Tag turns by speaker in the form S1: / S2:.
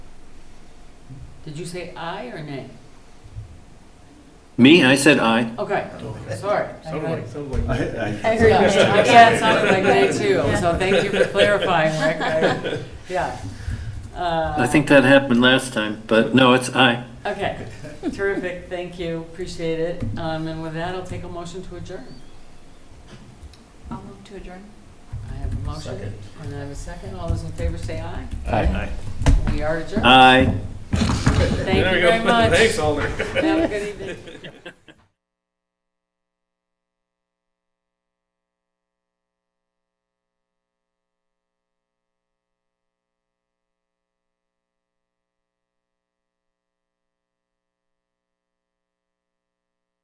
S1: Did you say aye or nay?
S2: Me, I said aye.
S1: Okay, sorry. I
S3: Sounded like,
S1: heard-
S3: sounded
S4: I,
S3: like.
S1: I
S4: I,
S1: heard, yeah, it sounded like nay too, so thank you for clarifying, Rick. I- Yeah. Uh,
S2: I think that happened last time, but no, it's aye.
S1: Okay, terrific, thank you, appreciate it. Um, And with that, I'll take a motion to adjourn.
S5: I'll move to adjourn.
S1: I have a motion,
S3: Second.
S1: and I have a second. All those in favor say aye.
S4: I,
S1: We are adjourned.
S2: Aye.
S1: Thank you very much.
S3: Thanks, Alder.
S1: Have a good evening.